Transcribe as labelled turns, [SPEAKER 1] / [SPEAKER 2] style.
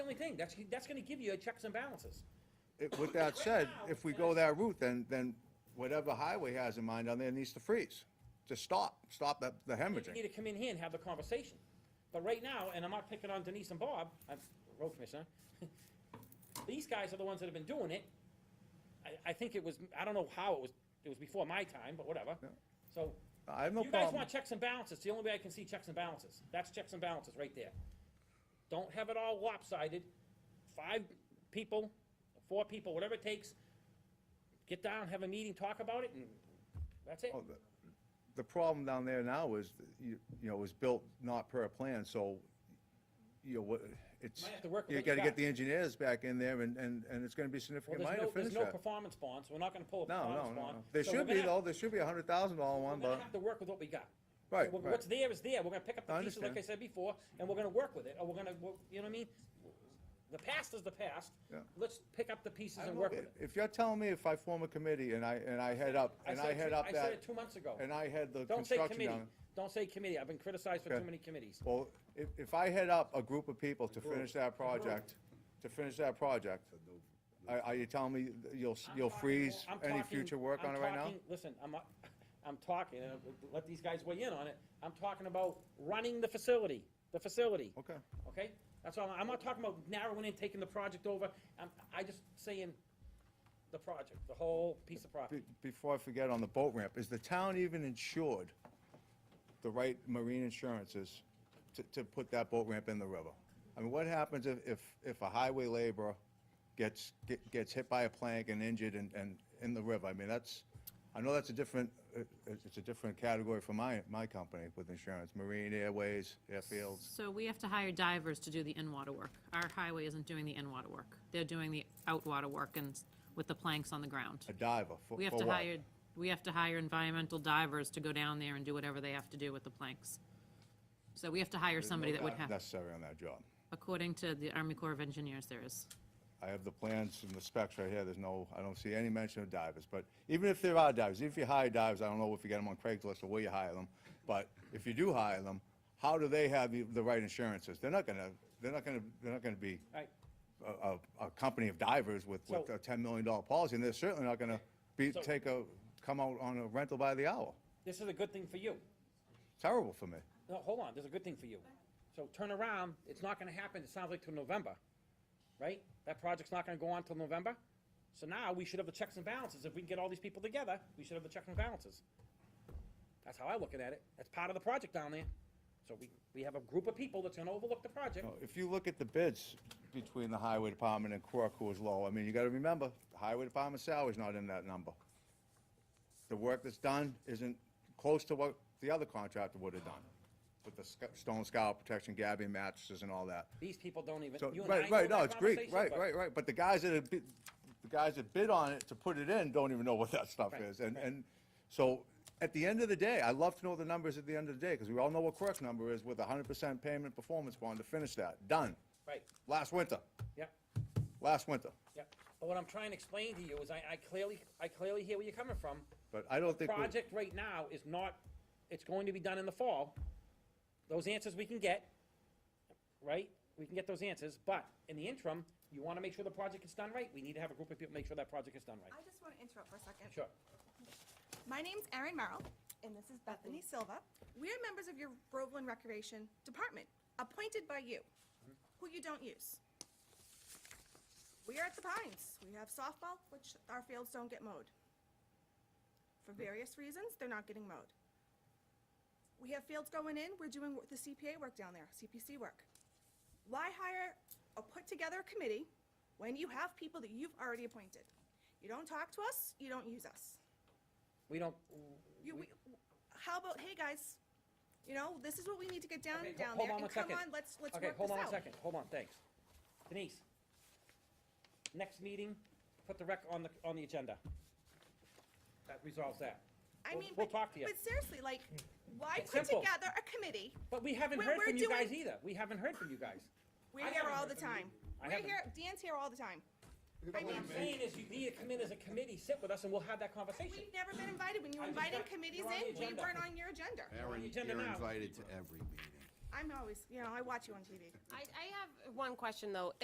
[SPEAKER 1] only thing, that's, that's gonna give you checks and balances.
[SPEAKER 2] It- With that said, if we go that route, then, then whatever highway has in mind down there needs to freeze. Just stop, stop the the
[SPEAKER 1] You need
[SPEAKER 2] hemorrhaging.
[SPEAKER 1] to come in here and have the conversation. But right now, and I'm not picking on Denise and Bob, I'm road commissioner, these guys are the ones that have been doing it. I, I think it was, I don't know how it was, it was before my time, but whatever. So,
[SPEAKER 2] I have no
[SPEAKER 1] you guys
[SPEAKER 2] problem.
[SPEAKER 1] want checks and balances, the only way I can see checks and balances, that's checks and balances right there. Don't have it all lopsided, five people, four people, whatever it takes, get down, have a meeting, talk about it, and that's it.
[SPEAKER 2] Oh, the- The problem down there now is, that you, you know, it was built not per plan, so, you know, what, it's,
[SPEAKER 1] Might have to work with
[SPEAKER 2] you
[SPEAKER 1] what you
[SPEAKER 2] gotta
[SPEAKER 1] got.
[SPEAKER 2] get the engineers back in there and, and, and it's gonna be
[SPEAKER 1] Well,
[SPEAKER 2] significant
[SPEAKER 1] there's
[SPEAKER 2] money to
[SPEAKER 1] no,
[SPEAKER 2] finish
[SPEAKER 1] there's no
[SPEAKER 2] that.
[SPEAKER 1] performance bonds, we're not gonna pull a
[SPEAKER 2] No, no,
[SPEAKER 1] performance
[SPEAKER 2] no,
[SPEAKER 1] bond.
[SPEAKER 2] no. There
[SPEAKER 1] So we're
[SPEAKER 2] should be
[SPEAKER 1] gonna-
[SPEAKER 2] though, there should be a hundred thousand dollar one,
[SPEAKER 1] We're
[SPEAKER 2] but,
[SPEAKER 1] gonna have to work with what we got.
[SPEAKER 2] right,
[SPEAKER 1] What-
[SPEAKER 2] right.
[SPEAKER 1] What's there is there, we're gonna pick up the
[SPEAKER 2] I
[SPEAKER 1] pieces, like I said
[SPEAKER 2] understand.
[SPEAKER 1] before, and we're gonna work with it, or we're gonna, we're- you know what I mean? The past is the past,
[SPEAKER 2] Yeah.
[SPEAKER 1] let's pick up the pieces
[SPEAKER 2] I
[SPEAKER 1] and
[SPEAKER 2] will
[SPEAKER 1] work
[SPEAKER 2] be.
[SPEAKER 1] with it.
[SPEAKER 2] If you're telling me if I form a committee and I, and I head up, and
[SPEAKER 1] said
[SPEAKER 2] I
[SPEAKER 1] it
[SPEAKER 2] head
[SPEAKER 1] two-
[SPEAKER 2] up
[SPEAKER 1] I said
[SPEAKER 2] that,
[SPEAKER 1] it two months ago.
[SPEAKER 2] and I head the
[SPEAKER 1] Don't say
[SPEAKER 2] construction
[SPEAKER 1] committee,
[SPEAKER 2] down.
[SPEAKER 1] don't say committee, I've been criticized for
[SPEAKER 2] Okay.
[SPEAKER 1] too many committees.
[SPEAKER 2] Well, if, if I head up a group of people to finish that project, to finish that project, are, are you telling me that you'll, s-
[SPEAKER 1] I'm
[SPEAKER 2] you'll
[SPEAKER 1] talking-
[SPEAKER 2] freeze
[SPEAKER 1] I'm
[SPEAKER 2] any
[SPEAKER 1] talking-
[SPEAKER 2] future work
[SPEAKER 1] I'm
[SPEAKER 2] on it right now?
[SPEAKER 1] talking- Listen, I'm, not- I'm talking, and I'll let these guys weigh in on it, I'm talking about running the facility, the facility.
[SPEAKER 2] Okay.
[SPEAKER 1] Okay? That's all, I'm not talking about narrowing in, taking the project over, I'm, I just saying the project, the whole piece of property.
[SPEAKER 2] Be- Before I forget on the boat ramp, is the town even insured the right marine insurances to, to put that boat ramp in the river? I mean, what happens if, if, if a highway laborer gets, get- gets hit by a plank and injured and, and in the river? I mean, that's, I know that's a different, it- it's, it's a different category for my, my company with insurance, marine, airways, airfields.
[SPEAKER 3] So we have to hire divers to do the in-water work. Our highway isn't doing the in-water work. They're doing the out-water work and s- with the planks on the ground.
[SPEAKER 2] A diver, for,
[SPEAKER 3] We have
[SPEAKER 2] for
[SPEAKER 3] to
[SPEAKER 2] what?
[SPEAKER 3] hire, we have to hire environmental divers to go down there and do whatever they have to do with the planks. So we have to hire somebody that would have,
[SPEAKER 2] Necessary on that job.
[SPEAKER 3] according to the Army Corps of Engineers, there is.
[SPEAKER 2] I have the plans and the specs right here, there's no, I don't see any mention of divers, but even if there are divers, if you hire divers, I don't know if you get them on Craigslist or where you hire them, but if you do hire them, how do they have the- the right insurances? They're not gonna, they're not gonna, they're not gonna be
[SPEAKER 1] Right.
[SPEAKER 2] a, a, a company of divers with, with
[SPEAKER 1] So-
[SPEAKER 2] a ten million dollar policy, and they're certainly not gonna be,
[SPEAKER 1] So-
[SPEAKER 2] take a, come out on a rental by the hour.
[SPEAKER 1] This is a good thing for you.
[SPEAKER 2] Terrible for me.
[SPEAKER 1] No, hold on, this is a good thing for you. So turn around, it's not gonna happen, it sounds like till November, right? That project's not gonna go on till November? So now we should have the checks and balances. If we can get all these people together, we should have the checks and balances. That's how I look at it. That's part of the project down there. So we, we have a group of people that's gonna overlook the project.
[SPEAKER 2] know, if you look at the bids between the highway department and Quirk, who was low, I mean, you gotta remember, the highway department salary's not in that number. The work that's done isn't close to what the other contractor would have done, with the sc- stone scour protection, gabbing mattresses and all that.
[SPEAKER 1] These people don't even,
[SPEAKER 2] So,
[SPEAKER 1] you and I
[SPEAKER 2] right,
[SPEAKER 1] know
[SPEAKER 2] right, no,
[SPEAKER 1] that
[SPEAKER 2] it's great,
[SPEAKER 1] conversation,
[SPEAKER 2] right,
[SPEAKER 1] but-
[SPEAKER 2] right, right, but the guys that have bid, the guys that bid on it to put it in don't even know what that stuff
[SPEAKER 1] Right,
[SPEAKER 2] is, and, and, so, at the end of the day, I love to know the numbers at the end of the day, because we all know what Quirk's number is with a hundred percent payment performance bond to finish that, done.
[SPEAKER 1] Right,
[SPEAKER 2] Last winter,
[SPEAKER 1] yep.
[SPEAKER 2] last winter.
[SPEAKER 1] Yeah, but what I'm trying to explain to you is I, I clearly, I clearly hear where you're coming from.
[SPEAKER 2] But I don't think we-
[SPEAKER 1] Project right now is not, it's going to be done in the fall. Those answers we can get, right? We can get those answers, but in the interim, you wanna make sure the project is done right. We need to have a group of people make sure that project is done right.
[SPEAKER 4] I just want to interrupt for a second.
[SPEAKER 1] Sure.
[SPEAKER 4] My name's Erin Merrill, and this is Bethany Silva. We are members of your Groveland Recreation Department, appointed by you, who you don't use. We are at the Pines. We have softball, which our fields don't get mowed. For various reasons, they're not getting mowed. We have fields going in, we're doing the CPA work down there, CPC work. Why hire or put together a committee when you have people that you've already appointed? You don't talk to us, you don't use us.
[SPEAKER 1] We don't,
[SPEAKER 4] You, we, how about, hey guys, you know, this is what we need to get down,
[SPEAKER 1] Okay, ho-
[SPEAKER 4] down
[SPEAKER 1] hold
[SPEAKER 4] there,
[SPEAKER 1] on
[SPEAKER 4] and
[SPEAKER 1] one
[SPEAKER 4] come
[SPEAKER 1] second.
[SPEAKER 4] on, let's, let's work
[SPEAKER 1] okay,
[SPEAKER 4] this out.
[SPEAKER 1] hold on a second, hold on, thanks. Denise, next meeting, put the rec on the, on the agenda. That resolves that.
[SPEAKER 4] I
[SPEAKER 1] We'll-
[SPEAKER 4] mean,
[SPEAKER 1] We'll
[SPEAKER 4] but-
[SPEAKER 1] talk to you.
[SPEAKER 4] But seriously, like, why
[SPEAKER 1] It's
[SPEAKER 4] put
[SPEAKER 1] simple.
[SPEAKER 4] together a committee?
[SPEAKER 1] But we haven't
[SPEAKER 4] We're-
[SPEAKER 1] heard
[SPEAKER 4] we're
[SPEAKER 1] from you
[SPEAKER 4] doing-
[SPEAKER 1] guys either. We haven't heard from you guys. I
[SPEAKER 4] We're here
[SPEAKER 1] haven't
[SPEAKER 4] all
[SPEAKER 1] heard
[SPEAKER 4] the
[SPEAKER 1] from you.
[SPEAKER 4] time.
[SPEAKER 1] I
[SPEAKER 4] We're
[SPEAKER 1] haven't.
[SPEAKER 4] here, Dan's here all the time. I
[SPEAKER 1] What
[SPEAKER 4] mean,
[SPEAKER 1] I'm saying is you need to come in as a committee, sit with us, and we'll have that conversation.
[SPEAKER 4] we've never been invited. When you
[SPEAKER 1] I
[SPEAKER 4] were
[SPEAKER 1] just
[SPEAKER 4] inviting
[SPEAKER 1] got-
[SPEAKER 4] committees
[SPEAKER 1] you're on the
[SPEAKER 4] in, we
[SPEAKER 1] agenda.
[SPEAKER 4] weren't on your agenda.
[SPEAKER 1] the
[SPEAKER 5] Aaron,
[SPEAKER 1] agenda
[SPEAKER 5] you're
[SPEAKER 1] now.
[SPEAKER 5] invited to every meeting.
[SPEAKER 4] I'm always, you know, I watch you on TV.
[SPEAKER 6] I, I have one question, though.